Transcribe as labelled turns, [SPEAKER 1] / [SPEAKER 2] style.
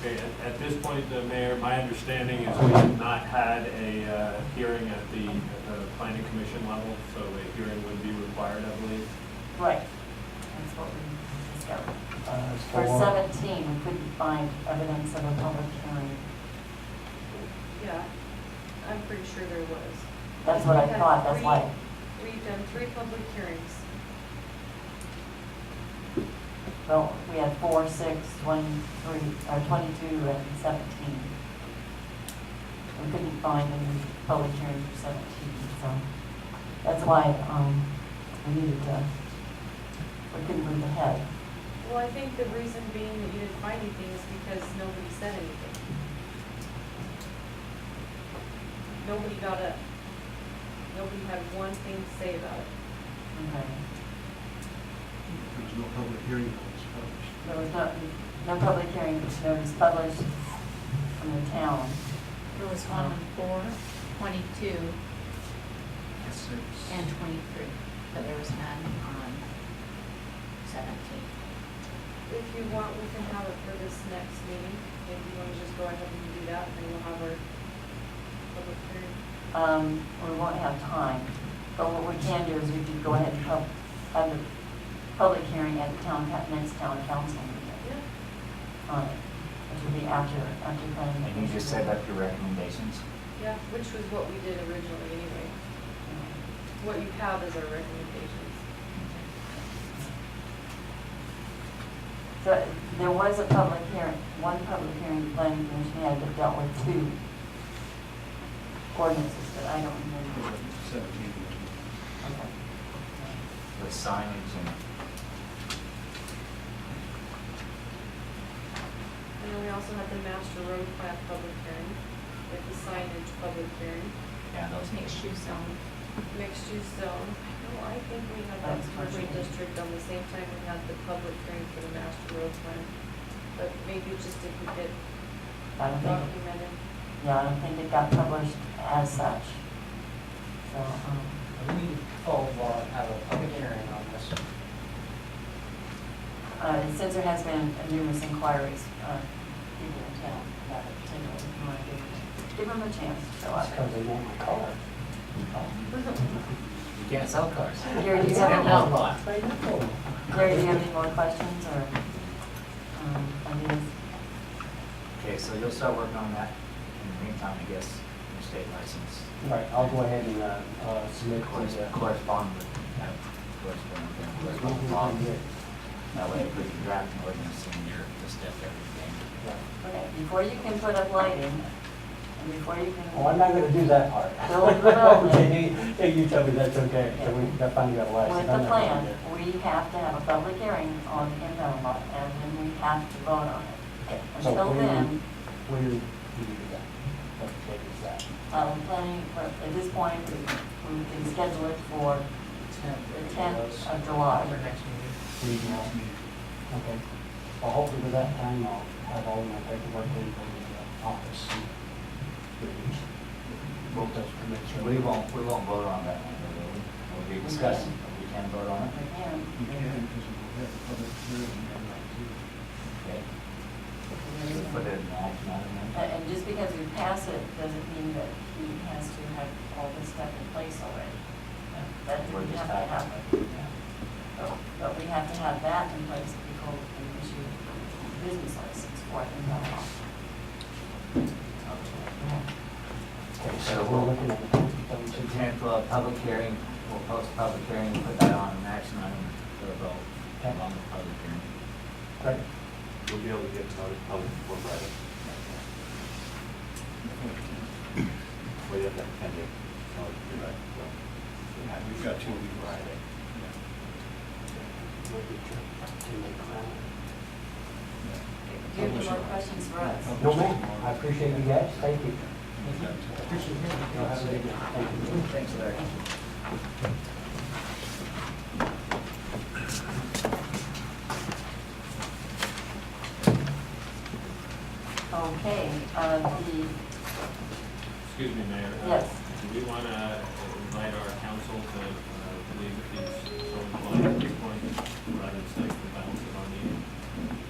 [SPEAKER 1] Okay, at, at this point, the mayor, my understanding is we have not had a, uh, hearing at the, at the planning commission level, so a hearing would be required, I believe.
[SPEAKER 2] Right, that's what we discovered.
[SPEAKER 3] Uh,
[SPEAKER 2] For
[SPEAKER 3] so, uh,
[SPEAKER 2] 17, we couldn't find evidence of a public hearing.
[SPEAKER 4] Yeah, I'm pretty sure there was.
[SPEAKER 2] That's what I
[SPEAKER 4] We've had
[SPEAKER 2] thought, that's why.
[SPEAKER 4] three- We've done three public hearings.
[SPEAKER 2] Well, we had four, six, twenty-three, or twenty-two and seventeen. We couldn't find any public hearing for seventeen, so that's why, um, we needed to, we couldn't move ahead.
[SPEAKER 4] Well, I think the reason being that you didn't find anything is because nobody said anything. Nobody got up. Nobody had one thing to say about it.
[SPEAKER 2] Okay.
[SPEAKER 5] There was no public hearing that was published.
[SPEAKER 2] There was no, no public hearing notice published from the town.
[SPEAKER 6] There was one on four, twenty-two,
[SPEAKER 5] Six.
[SPEAKER 6] and twenty-three, but there was none on seventeen.
[SPEAKER 4] If you want, we can have it for this next meeting. If you want to just go ahead and do that, then we'll have our public hearing.
[SPEAKER 2] Um, we won't have time, but what we can do is we could go ahead and pub, have the public hearing at the town, ca- next town council meeting
[SPEAKER 4] Yeah.
[SPEAKER 2] on it, which will be after, after planning.
[SPEAKER 7] And you just set up your recommendations?
[SPEAKER 4] Yeah, which was what we did originally anyway. What you have is our recommendations.
[SPEAKER 2] So there was a public hearing, one public hearing the planning commission had that dealt with two ordinances, but I don't remember.
[SPEAKER 5] Seventeen.
[SPEAKER 7] Mm-hmm.
[SPEAKER 2] Okay.
[SPEAKER 7] with signage and,
[SPEAKER 4] And then we also had the master road plan public hearing, with the signage public hearing,
[SPEAKER 7] yeah, those needs.
[SPEAKER 6] Mixed use zone,
[SPEAKER 4] mixed use zone. No, I think we had that
[SPEAKER 2] That's
[SPEAKER 4] commercial
[SPEAKER 2] partially.
[SPEAKER 4] district on the same time we had the public hearing for the master road plan. But maybe it just didn't get
[SPEAKER 2] I don't think,
[SPEAKER 4] documented.
[SPEAKER 2] yeah, I don't think it got published as such. So, um,
[SPEAKER 3] We need to call, uh, have a public hearing on this.
[SPEAKER 2] Uh, Since there has been numerous inquiries, uh, people in town about it, so we want to give them- give them a chance to show
[SPEAKER 3] That's
[SPEAKER 2] up.
[SPEAKER 3] because they want my car.
[SPEAKER 7] You can't sell cars.
[SPEAKER 2] Gary, do you
[SPEAKER 7] It's
[SPEAKER 2] have
[SPEAKER 7] an
[SPEAKER 2] any
[SPEAKER 7] outlawed
[SPEAKER 2] more,
[SPEAKER 7] lot.
[SPEAKER 3] They know.
[SPEAKER 2] Gary, do you have any more questions or um, ideas?
[SPEAKER 7] Okay, so you'll start working on that in the meantime, I guess, your state license.
[SPEAKER 3] Right, I'll go ahead and, uh, uh, submit
[SPEAKER 7] Corres-
[SPEAKER 3] the, uh,
[SPEAKER 7] Correspond with, yeah, correspond with,
[SPEAKER 3] there's no
[SPEAKER 7] correspond with law.
[SPEAKER 3] problem here.
[SPEAKER 7] That way, if we can draft an ordinance and you're just step everything.
[SPEAKER 3] Right.
[SPEAKER 2] Okay, before you can put up lighting, and before you can.
[SPEAKER 3] Oh, I'm not gonna do that part.
[SPEAKER 2] Don't go.
[SPEAKER 3] Okay, you- hey, you tell me that's okay, so we, that finally got a license.
[SPEAKER 2] With the
[SPEAKER 3] I'm not gonna
[SPEAKER 2] plan,
[SPEAKER 3] do it.
[SPEAKER 2] we have to have a public hearing on the impound lot, and then we have to vote on it.
[SPEAKER 3] So
[SPEAKER 2] Until
[SPEAKER 3] we-
[SPEAKER 2] then,
[SPEAKER 3] We, we do that. What date is that?
[SPEAKER 2] um, planning, at this point, we we can schedule it for the 10th of July.
[SPEAKER 3] Regional. Okay. Well, hopefully by that time, I'll have all my paperwork in from the uh, office. and we can Vote those permits. or-
[SPEAKER 7] We won't, we won't vote on that one, we'll, we'll be discussing, but we can vote on it.
[SPEAKER 2] Again,
[SPEAKER 5] You can, because we'll have a public hearing and that too.
[SPEAKER 7] Okay. So Put it in the action item then.
[SPEAKER 2] a- And just because we pass it doesn't mean that he has to have all this stuff in place already. That
[SPEAKER 7] We're
[SPEAKER 2] didn't
[SPEAKER 7] just
[SPEAKER 2] have to
[SPEAKER 7] back.
[SPEAKER 2] happen.
[SPEAKER 7] Yeah.
[SPEAKER 2] But- But we have to have that in place before we can issue a business license for it in that law.
[SPEAKER 3] Okay, so we're looking at the
[SPEAKER 7] So
[SPEAKER 3] 10th,
[SPEAKER 7] Tenth, well, public hearing, we'll post a public hearing, put that on an action item for a vote, along with public hearing.
[SPEAKER 3] Right.
[SPEAKER 8] We'll be able to get started probably before Friday. Well, you have that pending. Oh, you're right. Well,
[SPEAKER 5] Yeah, we've got two weeks.
[SPEAKER 8] Friday.
[SPEAKER 2] Do you have any more questions for us?
[SPEAKER 3] No, ma'am, I appreciate you guys, thank you.
[SPEAKER 5] Appreciate it.
[SPEAKER 3] Y'all have a good night. Thank you.
[SPEAKER 7] Thanks, Larry.
[SPEAKER 2] Okay, uh, the,
[SPEAKER 1] Excuse me, Mayor. uh,
[SPEAKER 2] Yes.
[SPEAKER 1] Do we want to invite our council to uh, leave these sort of lines at this point, rather than stay for the balance of our meeting?